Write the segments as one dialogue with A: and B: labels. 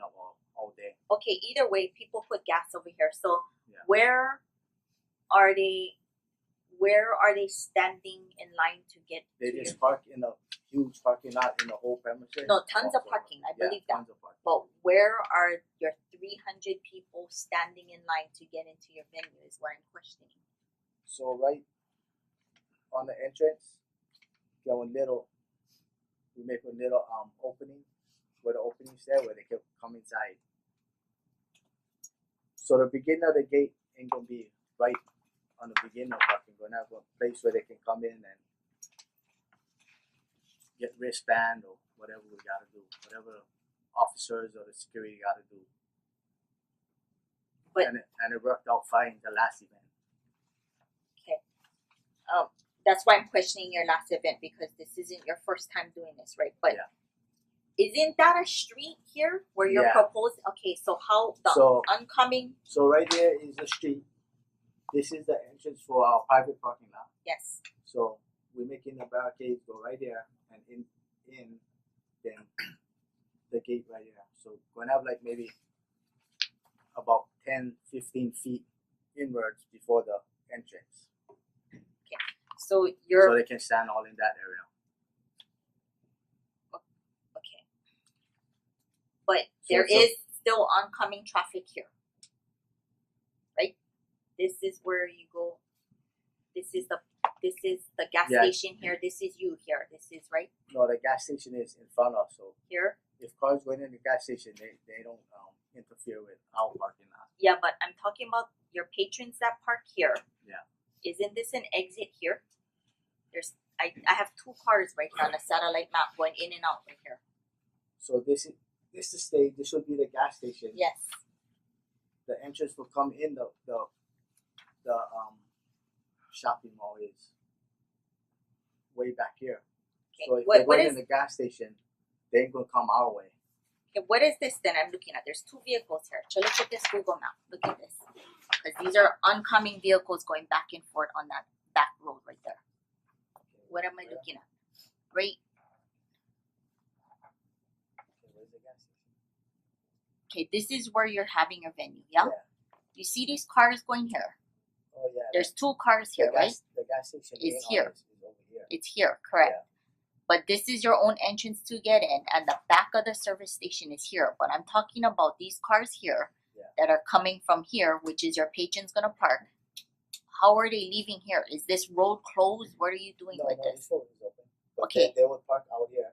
A: um,
B: okay, either way, people put gas over here. So
A: Yeah.
B: where are they? Where are they standing in line to get?
A: They
B: to
A: just
B: your-
A: park in a huge parking lot in the whole premises.
B: no tons of
A: Also,
B: parking. I
A: yeah,
B: believe that.
A: tons of parking.
B: But where are your three hundred people standing in line to get into your venue? Is what I'm questioning.
A: So right on the entrance, going little, we make a little um opening where the opening is there where they can come inside. So the beginning of the gate ain't gonna be right on the beginning of parking. We're gonna have a place where they can come in and get wristband or whatever we gotta do, whatever officers or the security gotta do.
B: But-
A: and it, and it worked out fine the last event.
B: um, that's why I'm questioning your last event because this isn't your first time doing this, right? But
A: Yeah.
B: isn't that a street here where you're
A: Yeah.
B: proposing? Okay, so how the
A: So-
B: oncoming?
A: So right there is the street. This is the entrance for our private parking lot.
B: Yes.
A: So we're making the barricades go right there and in in then the gate right there. So we're gonna have like maybe about 10, 15 feet inwards before the entrance.
B: So you're
A: so they can stand all in that area.
B: okay, but
A: So
B: there is
A: it's a-
B: still oncoming traffic here, right? This is where you go. This is the this is the gas
A: Yeah.
B: station here. This is you here. This is right
A: No, the gas station is in front of so
B: here.
A: if cars going in the gas station they, they don't um, interfere with our parking lot.
B: Yeah, but I'm talking about your patrons that park here.
A: Yeah.
B: Isn't this an exit here? There's I, I have two cars right here on a satellite map going in and out right here.
A: So this is this is stage, this would be the gas station.
B: Yes.
A: the entrance will come in the the the um shopping mall is way back here. So
B: Okay.
A: if they
B: What what
A: went
B: is
A: in the gas station, they ain't gonna come our way.
B: okay, what is this then I'm looking at? There's two vehicles here. So look at this Google map. Look at this. Because these are oncoming vehicles going back and forth on that back road right there. What am I
A: Yeah.
B: looking at? Right
A: Where's the gas station?
B: okay, this is where you're having your venue, yeah?
A: Yeah.
B: You see these cars going here.
A: Oh yeah.
B: There's two cars
A: the
B: here, right?
A: gas, the gas station
B: It's
A: main
B: here.
A: office Is over here.
B: It's here, correct.
A: Yeah.
B: But this is your own entrance to get in, and the back of the service station is here. But I'm talking about these cars here
A: Yeah.
B: that are coming from here, which is your patron's gonna park. How are they leaving here? Is this road closed? What are you doing
A: no,
B: with
A: no,
B: this?
A: this road is open. But
B: Okay.
A: They, they would park out here.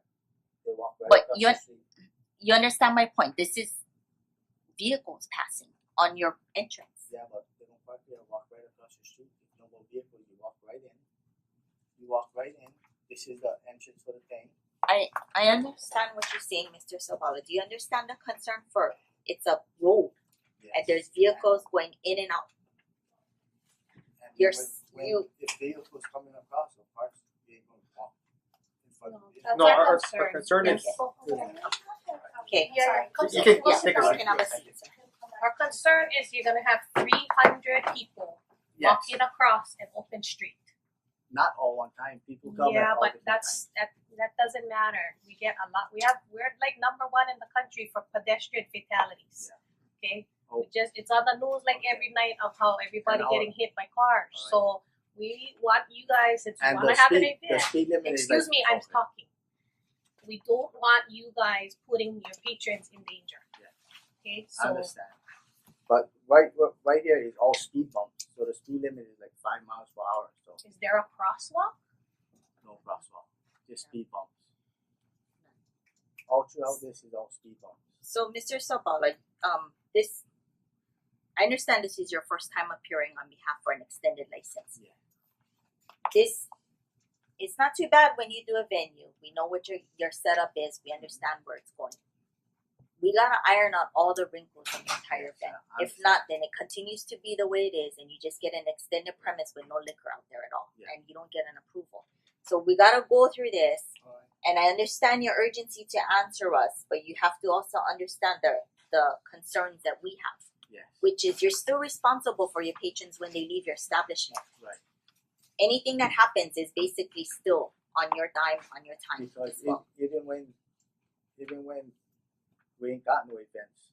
A: They walk right
B: But
A: across
B: you're-
A: the street.
B: You understand my point? This is vehicles passing on your entrance.
A: Yeah, but they don't park there. Walk right across the street. There's no more vehicles. You walk right in. You walk right in. This is the entrance for the thing.
B: I understand what you're saying, Mister Sobala. Do you understand the concern for it's a road and
A: Yes.
B: there's vehicles going in and out?
A: And
B: You're
A: when-
B: s-
A: when-
B: you-
A: If vehicles coming across the parks, they ain't gonna walk in front of it.
C: No, our, our our concern is
B: Okay.
D: Sorry.
C: You can-
B: Yeah,
C: take a seat.
B: can have a seat, sir.
D: Our concern is you're gonna have three hundred people walking across an open street.
A: Not all one time, people come at
D: Yeah,
A: all
D: but
A: different times.
D: that's, that, that doesn't matter, we get a lot, we have, we're like number one in the country for pedestrian fatalities. Okay,
A: Oh.
D: we just, it's on the news like every night of how everybody
A: And all-
D: getting hit by cars,
A: Oh,
D: so we want you guys, if you
A: And
D: wanna
A: the
D: have an
A: speed,
D: event.
A: the speed limit is like.
D: Excuse me, I'm
A: okay.
D: talking. We don't want you guys putting your patrons in danger.
A: Yeah.
D: Okay,
A: I
D: so
A: understand. But right, right here is all speed bumps, so the speed limit is like five miles per hour, so
D: is there a crosswalk?
A: no crosswalk, just speed bumps. All throughout this is all speed bumps.
B: So, Mr. Sabala, um, this, I understand this is your first time appearing on behalf for an extended license.
A: Yeah.
B: This, it's not too bad when you do a venue. We know what your your setup is. We understand where it's going. We gotta iron out all the wrinkles in the entire
A: Yes,
B: thing.
A: I
B: If not, then it continues to be the way it is, and you just get an extended premise with no liquor out there at all,
A: Yeah.
B: and you don't get an approval. So we gotta go through this.
A: Alright.
B: And I understand your urgency to answer us, but you have to also understand the the concerns that we have,
A: Yes,
B: which is you're still responsible for your patrons when they leave your establishment.
A: right,
B: Anything that happens is basically still on your dime, on your time
A: because
B: as
A: e-
B: well.
A: even when, even when we ain't got no events,